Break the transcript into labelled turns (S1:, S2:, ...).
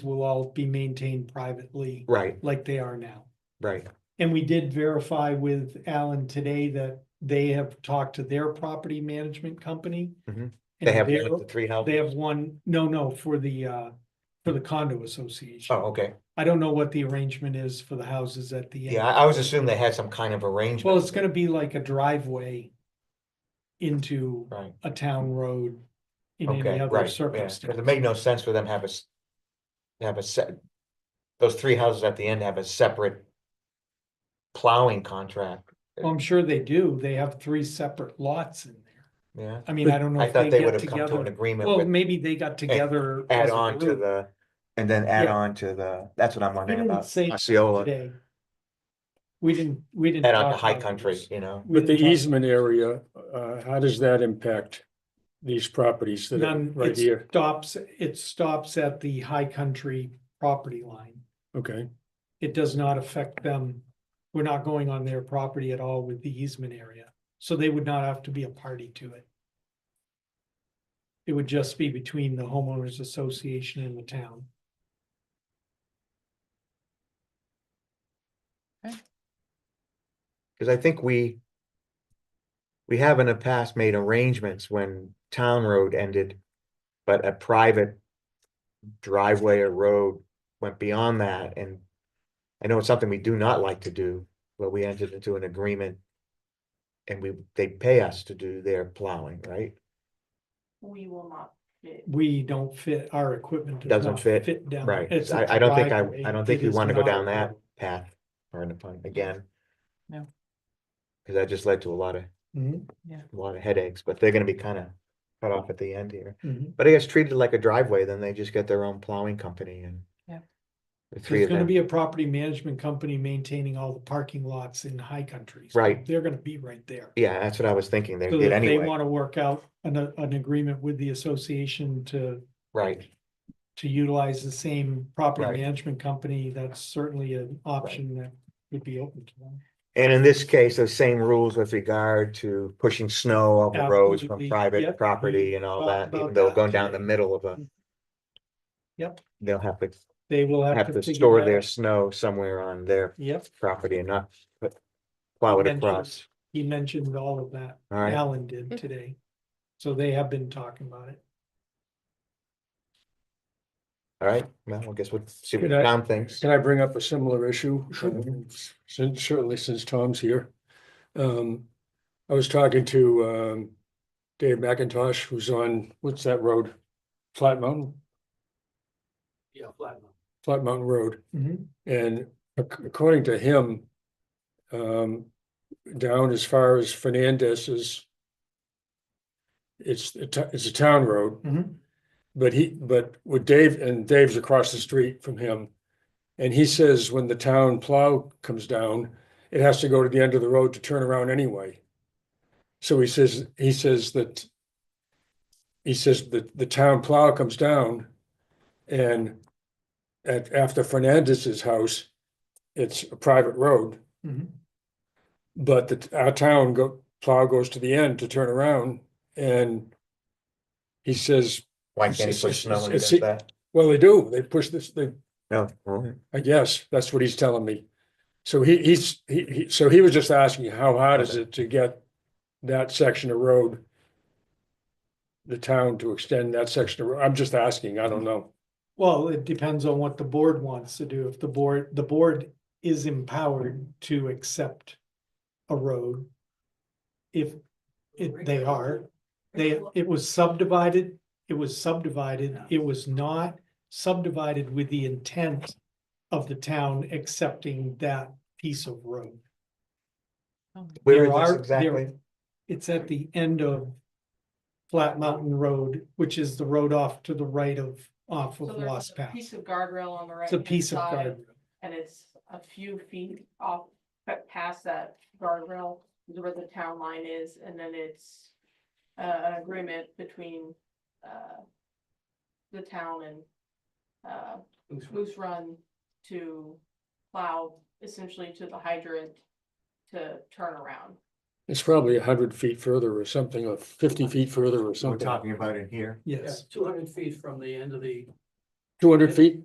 S1: will all be maintained privately
S2: Right,
S1: like they are now.
S2: right,
S1: And we did verify with Alan today that they have talked to their property management company.
S2: Mhm.
S1: and
S2: they have
S1: they're-
S2: one of the three
S1: They
S2: houses,
S1: have one, no, no, for the, uh, for the condo association.
S2: oh, okay,
S1: I don't know what the arrangement is for the houses at the end.
S2: yeah, I I was assuming they had some kind of arrangement.
S1: Well, it's gonna be like a driveway into
S2: Right,
S1: a town road in
S2: okay,
S1: any other
S2: right, yeah, 'cause
S1: circumstance.
S2: it made no sense for them to have a, s- to have a set, those three houses at the end have a separate plowing contract,
S1: Well, I'm sure they do. They have three separate lots in there.
S2: yeah,
S1: I mean, I don't know
S2: I
S1: if
S2: thought
S1: they
S2: they would
S1: get
S2: have come to an
S1: together.
S2: agreement
S1: Well,
S2: with,
S1: maybe they got together.
S2: add
S1: as a
S2: on to
S1: group
S2: the, and then add
S1: Yeah.
S2: on to the, that's what I'm wondering
S1: didn't
S2: about,
S1: say
S2: Osceola,
S1: Today. We didn't, we didn't.
S2: add on to
S1: talk
S2: High
S1: about
S2: Country,
S1: this.
S2: you know,
S1: We
S3: But the
S1: didn't talk-
S3: easement area, uh, how does that impact these properties that are
S1: None,
S3: right
S1: it
S3: here?
S1: stops, it stops at the High Country property line.
S3: Okay,
S1: it does not affect them. We're not going on their property at all with the easement area, so they would not have to be a party to it. It would just be between the homeowners association and the town.
S2: cause I think we we have in the past made arrangements when town road ended, but a private driveway or road went beyond that and I know it's something we do not like to do, but we entered into an agreement and we, they pay us to do their plowing, right?
S4: we will not fit.
S1: We don't fit, our equipment. does
S2: Doesn't
S1: not
S2: fit,
S1: Fit down.
S2: Right,
S1: It's a
S2: I, I don't think I,
S1: driveway.
S2: I don't think
S1: It
S2: we
S1: is
S2: wanna go
S1: not a
S2: down that
S1: road.
S2: path, pardon the pun, again.
S4: No.
S2: Cause that just led to a lot of
S1: Mhm,
S2: a lot of headaches, but they're gonna be kind of cut off at the end here.
S1: mhm.
S2: But I guess treated like a driveway, then they just get their own plowing company and.
S4: Yeah.
S2: The three
S1: There's
S2: of
S1: gonna
S2: them,
S1: be a property management company maintaining all the parking lots in high countries.
S2: Right.
S1: They're gonna be right there.
S2: yeah, that's what I was thinking, they
S1: So
S2: did
S1: if they
S2: anyway,
S1: wanna work out an, an agreement with the association to
S2: right,
S1: to utilize the same
S2: Right.
S1: property management company, that's certainly an option that would be open to them.
S2: and in this case, those same rules with regard to pushing snow off the roads from
S1: Absolutely,
S2: private
S1: yep,
S2: property
S1: we
S2: and all
S1: talked
S2: that, even
S1: about
S2: though
S1: that
S2: going down the
S1: today.
S2: middle of a.
S1: Yep.
S2: They'll have to,
S1: They will have
S2: have
S1: to.
S2: to
S1: figure
S2: store
S1: that
S2: their
S1: out.
S2: snow somewhere on their
S1: Yep,
S2: property and not put- plow it
S1: Mentioned.
S2: across,
S1: he mentioned all of that,
S2: all right?
S1: Alan did today, so they have been talking about it.
S2: All right, well, I guess we'll see what
S3: Could I-
S2: Tom thinks.
S3: can I bring up a similar issue?
S1: Sure.
S3: Um, Since, certainly since Tom's here. Um, I was talking to, um, Dave McIntosh, who's on, what's that road? Flat Mountain,
S1: Yeah, flat.
S3: Flat Mountain Road. And ac- according to him, um, down as far as Fernandez's, it's, a to- it's a town road, but he, but with Dave, and Dave's across the street from him. And he says when the town plow comes down, it has to go to the end of the road to turn around anyway. So he says, he says that, he says that the town plow comes down and at, after Fernandez's house, it's a private road, but the, our town go, plow goes to the end to turn around and he says,
S2: Why can't he
S3: It's-
S2: push
S3: it's-
S2: snow when he
S3: it's-
S2: does that?
S3: well, they do, they push this, they,
S2: No, all right.
S3: I guess, that's what he's telling me. So he, he's, he, he, so he was just asking, how hard is it to get that section of road? The town to extend that section of, road? I'm just asking, I don't know.
S1: Well, it depends on what the board wants to do. If the board, the board is empowered to accept a road. If it, they are, they, it was subdivided, it was subdivided, it was not subdivided with the intent of the town accepting that piece of road.
S2: Where
S1: There
S2: is
S1: are-
S2: this
S1: there-
S2: exactly?
S1: It's at the end of Flat Mountain Road, which is the road off to the right of, off
S4: So
S1: of
S4: there's
S1: Lost
S4: a
S1: Path.
S4: Piece of guardrail on the right.
S1: It's a piece of
S4: side,
S1: garden.
S4: And it's a few feet off, but past that guardrail is where the town line is, and then it's. Uh, an agreement between, uh. The town and, uh, Moose Run to plow essentially to the hydrant. To turn around.
S3: It's probably a hundred feet further or something, or fifty feet further or
S2: We're
S3: something.
S2: talking about in here.
S1: Yes.
S5: Two hundred feet from the end of the
S3: Two hundred feet?